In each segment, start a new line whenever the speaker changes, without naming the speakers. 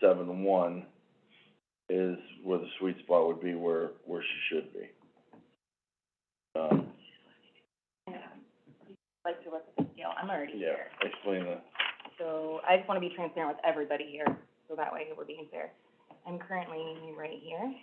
seven one is where the sweet spot would be where, where she should be. Um,
like to what's the deal, I'm already
yeah,
here.
explain the,
So I just wanna be transparent with everybody here, so that way we're being fair. I'm currently right here.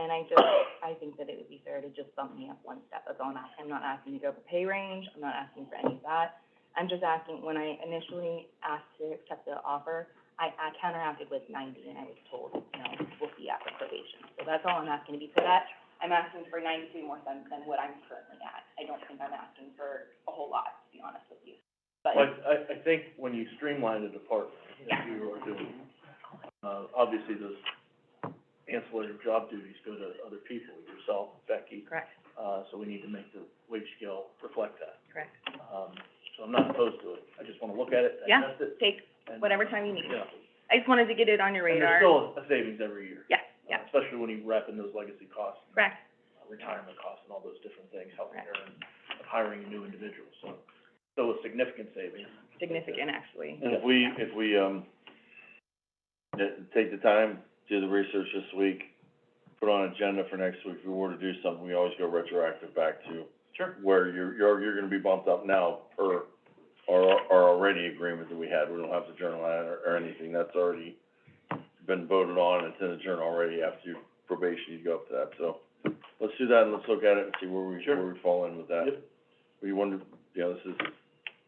And I just, I think that it would be fair to just bump me up one step, that's all I'm asking. I'm not asking to go up a pay range, I'm not asking for any of that. I'm just asking, when I initially asked to accept the offer, I, I counteracted with ninety and I was told, you know, we'll see after probation. So that's all I'm asking to be put at. I'm asking for ninety-three more than, than what I'm currently at. I don't think I'm asking for a whole lot, to be honest with you. But,
Well, I, I think when you streamline the department,
Yeah.
as you are doing, uh, obviously those ancillary job duties go to other people, yourself, Becky,
correct,
uh, so we need to make the wage scale reflect that.
correct.
Um, so I'm not opposed to it, I just wanna look at it,
Yeah.
digest it,
Take
and.
whatever time you need.
Yeah,
I just wanted to get it on your
and
radar.
there's still a savings every year.
Yeah,
uh,
yeah.
Especially when you wrap in those legacy costs,
Correct,
uh, retirement costs and all those different things,
Right.
healthcare and hiring new individuals, so, still a significant savings.
significant, actually.
and if we, if we, um, th- take the time, do the research this week, put on an agenda for next week, if we were to do something, we always go retroactive back to
Sure.
where you're, you're, you're gonna be bumped up now per our, our already agreement that we had. We don't have to journal that or, or anything. That's already been voted on. It's in the journal already. After your probation, you go up to that. So let's do that and let's look at it and see where we,
Sure.
where we fall in with that.
Yep.
We wonder, you know, this is, like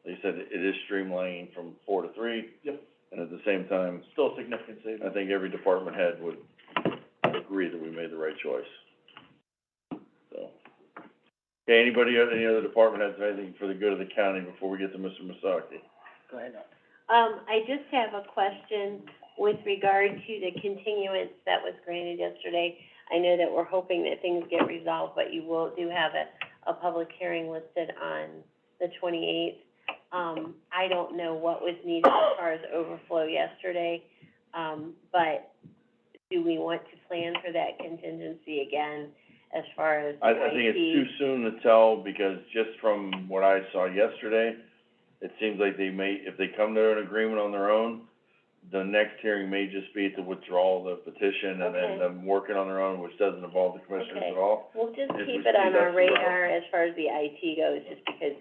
you said, it is streamlining from four to three.
Yep.
And at the same time,
Still a significant savings.
I think every department head would agree that we made the right choice. So. Okay, anybody, any other department heads, have anything for the good of the county before we get to Mr. Masaki?
Go ahead.
Um, I just have a question with regard to the continuance that was granted yesterday. I know that we're hoping that things get resolved, but you will, do have a, a public hearing listed on the twenty-eighth. Um, I don't know what was needed as far as overflow yesterday, um, but do we want to plan for that contingency again as far as
I, I think it's too
IT?
soon to tell, because just from what I saw yesterday, it seems like they may, if they come to an agreement on their own, the next hearing may just be to withdraw the petition and then
Okay.
them working on their own, which doesn't involve the commissioners
Okay.
at all.
We'll just
If we
keep it on
see
our
that's the route.
radar as far as the IT goes, just because,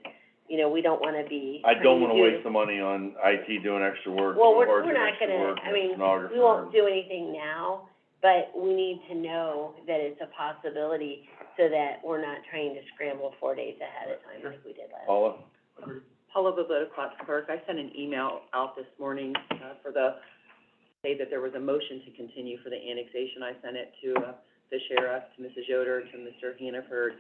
you know, we don't wanna be
I don't wanna
trying to do-
waste the money on IT doing extra work,
Well,
doing
we're-
hard
we're
doing
not
extra
gonna-
work,
I mean,
stenographer.
We won't do anything now, but we need to know that it's a possibility so that we're not trying to scramble four days ahead of time like we did last.
Paula?
Paula Bobota, Clark Clerk, I sent an email out this morning, uh, for the, say that there was a motion to continue for the annexation. I sent it to, uh, the sheriff, to Mrs. Yoder, to Mr. Hannaford,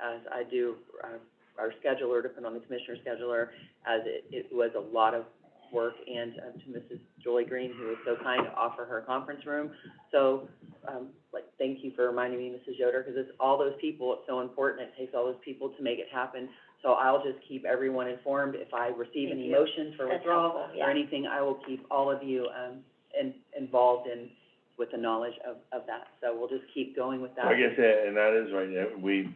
as I do, uh, our scheduler, to put on the commissioner scheduler, as it, it was a lot of work, and, uh, to Mrs. Joy Green, who was so kind to offer her conference room. So, um, like, thank you for reminding me, Mrs. Yoder, because it's all those people, it's so important, it takes all those people to make it happen. So I'll just keep everyone informed, if I receive
Thank
any
you.
motions for
That's
withdrawal
helpful, yeah.
or anything, I will keep all of you, um, in, involved in, with the knowledge of, of that. So we'll just keep going with that.
Like I said, and that is right, yeah, we,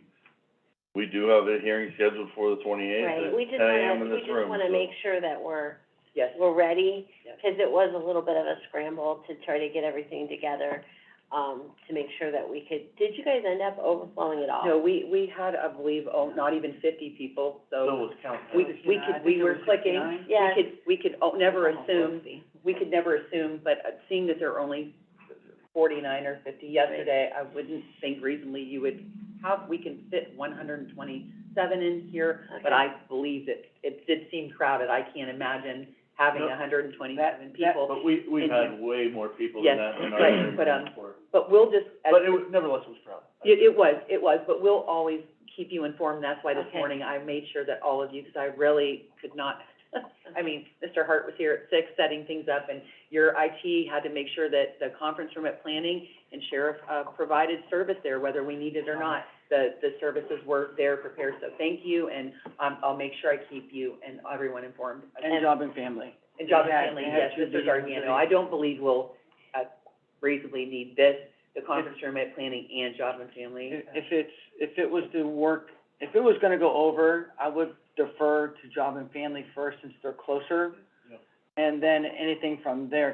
we do have a hearing scheduled for the twenty-eighth
Right, we
at
just
ten AM
wanna,
in
we
this
just
room,
wanna
so-
make sure that we're,
Yes,
we're ready,
Yep.
because it was a little bit of a scramble to try to get everything together, um, to make sure that we could, did you guys end up overflowing at all?
no, we, we had, I believe, oh, not even fifty people,
Bill
so
was counting.
we, we could, we were clicking.
Yeah.
We could, we could o- never assume, we could never assume, but uh, seeing that there are only forty-nine or fifty yesterday, I wouldn't think reasonably you would have, we can fit one hundred and twenty-seven in here, but
Okay.
I believe that it did seem crowded. I can't imagine having
No.
hundred and twenty-seven people.
But we, we've
And-
had way more people than
Yes,
that in
but-
our
but, um,
before.
But we'll just, as
But it was, nevertheless, it was crowded.
It, it was, it was, but we'll always keep you informed, that's why this
Okay.
morning I made sure that all of you, because I really could not, I mean, Mr. Hart was here at six setting things up, and your IT had to make sure that the conference room at planning and sheriff, uh, provided service there, whether we needed or not. The, the services were there prepared, so thank you, and, um, I'll make sure I keep you and everyone informed.
job and family.
And John
They had-
McKinley,
they had
yes,
two
Mr.
meetings
Gargano,
today.
I don't believe we'll, uh, reasonably need this, the conference room at planning and job and family.
If,
uh,
if it's, if it was to work, if it was gonna go over, I would defer to job and family first since they're closer.
Yeah.
And then anything from there,